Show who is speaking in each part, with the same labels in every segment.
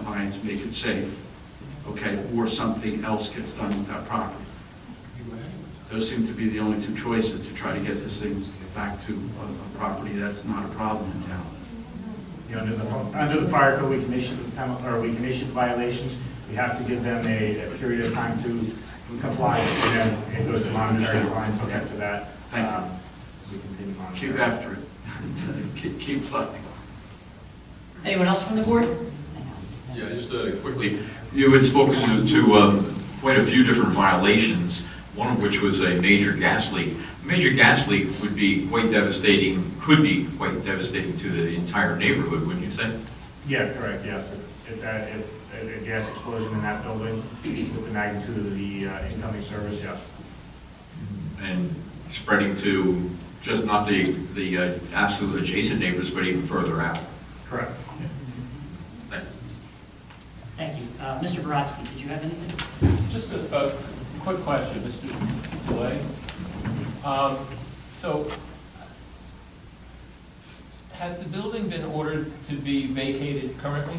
Speaker 1: signs, make it safe, okay, or something else gets done with that property. Those seem to be the only two choices to try to get this thing back to a a property that's not a problem in town.
Speaker 2: You know, under the, under the fire code, we can issue, the penal- or we can issue violations. We have to give them a a period of time to comply, and then it goes to monetary fines, so after that,
Speaker 1: Thank you.
Speaker 2: um, we continue monitoring.
Speaker 1: Keep after it. Keep- Keep plugging.
Speaker 3: Anyone else from the board?
Speaker 4: Yeah, just uh, quickly, you had spoken to- to um, quite a few different violations, one of which was a major gas leak. Major gas leak would be quite devastating, could be quite devastating to the entire neighborhood, wouldn't you say?
Speaker 2: Yeah, correct, yes. If- If that, if a- a gas explosion in that building with the magnitude of the uh, incoming service, yes.
Speaker 4: And spreading to just not the, the uh, absolute adjacent neighbors, but even further out.
Speaker 2: Correct.
Speaker 4: Thank you.
Speaker 3: Thank you. Uh, Mr. Baratsky, did you have anything?
Speaker 5: Just a, a quick question, Mr. Delay. Um, so, has the building been ordered to be vacated currently?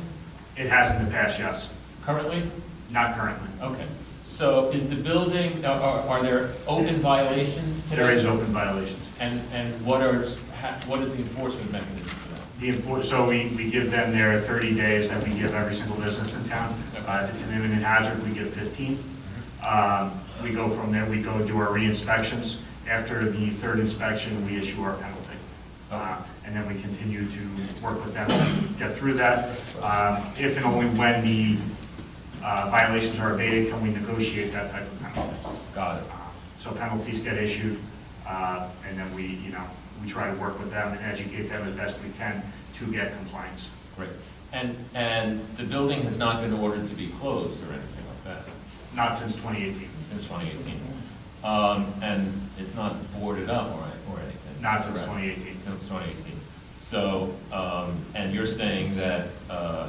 Speaker 2: It has in the past, yes.
Speaker 5: Currently?
Speaker 2: Not currently.
Speaker 5: Okay. So is the building, are, are are there open violations today?
Speaker 2: There is open violations.
Speaker 5: And, and what are, ha- what is the enforcement mechanism for that?
Speaker 2: The enfor, so we, we give them their 30 days that we give every single business in town. Uh, If it's an imminent hazard, we give 15. Um, We go from there, we go do our re-inspections. After the third inspection, we issue our penalty. Uh, And then we continue to work with them to get through that. Um, If and only when the uh, violations are abated, can we negotiate that type of penalty.
Speaker 5: Got it.
Speaker 2: Uh, So penalties get issued, uh, and then we, you know, we try to work with them and educate them as best we can to get compliance.
Speaker 5: Great. And, and the building has not been ordered to be closed or anything like that?
Speaker 2: Not since 2018,
Speaker 5: since 2018. Um, And it's not boarded up or or anything?
Speaker 2: not since
Speaker 5: correct?
Speaker 2: 2018.
Speaker 5: Since 2018. So, um, and you're saying that uh,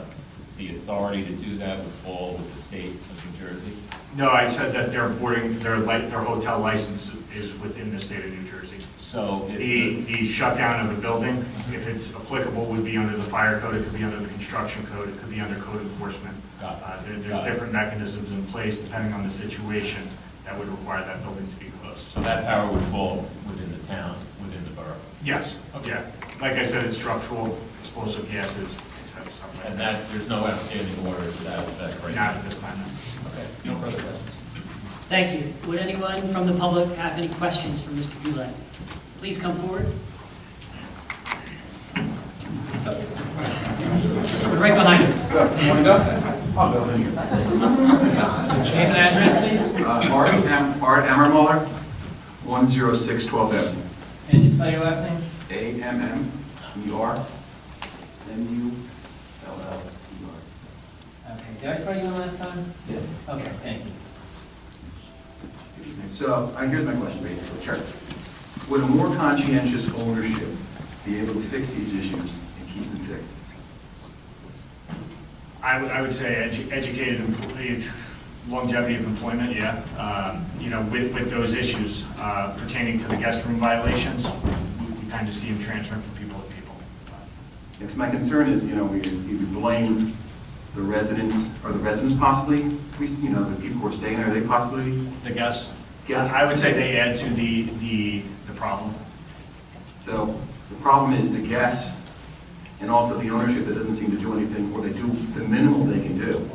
Speaker 5: the authority to do that would fall with the state of New Jersey?
Speaker 2: No, I said that their boarding, their li, their hotel license is within the state of New Jersey.
Speaker 5: So if
Speaker 2: The,
Speaker 5: the...
Speaker 2: the shutdown of a building,
Speaker 5: Mm-hmm.
Speaker 2: if it's applicable, would be under the fire code, it could be under the construction code, it could be under code enforcement.
Speaker 5: Got it.
Speaker 2: Uh, there- There's
Speaker 5: Got it.
Speaker 2: different mechanisms in place depending on the situation that would require that building to be closed.
Speaker 5: So that power would fall within the town, within the borough?
Speaker 2: Yes,
Speaker 5: Okay.
Speaker 2: yeah. Like I said, it's structural, explosive gases, except something like
Speaker 5: And
Speaker 2: that.
Speaker 5: that, there's no outstanding order to that, that right
Speaker 2: Not
Speaker 5: now?
Speaker 2: at this time. no.
Speaker 5: Okay, no further questions?
Speaker 3: Thank you. Would anyone from the public have any questions for Mr. Goulet? Please come forward. Someone right behind you. Name and address, please.
Speaker 1: Uh, Art Am- Art Ammermuller, 106 12th Avenue.
Speaker 6: And you spell your last name?
Speaker 7: E E
Speaker 1: A-M-M-E-R-M-U-L-L-E-R.
Speaker 6: Okay, did I spell you in last time?
Speaker 1: Yes.
Speaker 6: Okay, thank you.
Speaker 7: So, uh, here's my question, basically, Sure. Would a more conscientious ownership be able to fix these issues and keep them fixed?
Speaker 2: I would, I would say edu- educated employees, longevity of employment, yeah. Um, You know, with, with those issues uh, pertaining to the guest room violations, we- we kind of see them transferring from people to people.
Speaker 7: Because my concern is, you know, we, we would blame the residents, or the residents possibly, we, you know, the people who are staying there, they possibly,
Speaker 2: The guests?
Speaker 7: Yes.
Speaker 2: I would say they add to the, the, the problem.
Speaker 7: so the problem is the guests, and also the ownership that doesn't seem to do anything, or they do the minimal they can do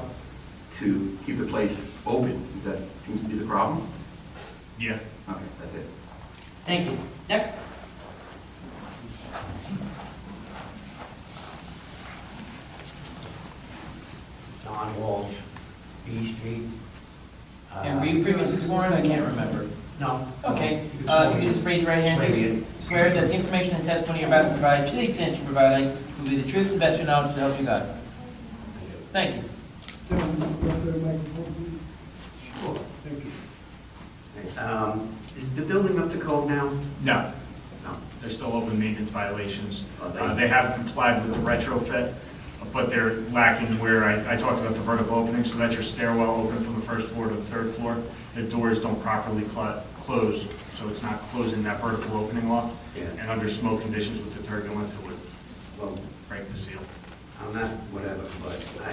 Speaker 7: to keep the place open, Is that seems to be the problem?
Speaker 2: Yeah.
Speaker 7: Okay, that's it.
Speaker 3: Thank you. Next.
Speaker 8: John Walsh, B Street. Uh,
Speaker 6: And were you previously sworn? I can't remember.
Speaker 8: No.
Speaker 6: Okay, uh, if you could just raise your right hand,
Speaker 8: Wait a
Speaker 6: just
Speaker 8: minute.
Speaker 6: swear that the information and testimony you're about to provide, to the extent you're providing, will be the truth and best of your knowledge to help you God. Thank you.
Speaker 8: Sure. Um, Is the building up to code now?
Speaker 2: No,
Speaker 8: No.
Speaker 2: They're still open maintenance violations.
Speaker 8: Are Oh, they?
Speaker 2: Uh, They have complied with the retrofit, but they're lacking where, I I talked about the vertical opening, so that's your stairwell open from the first floor to the third floor. The doors don't properly cl- close, so it's not closing that vertical opening off.
Speaker 8: Yeah.
Speaker 2: And under smoke conditions with the turbulence, it would
Speaker 8: Well,
Speaker 2: break the seal.
Speaker 8: I'm not, whatever, but I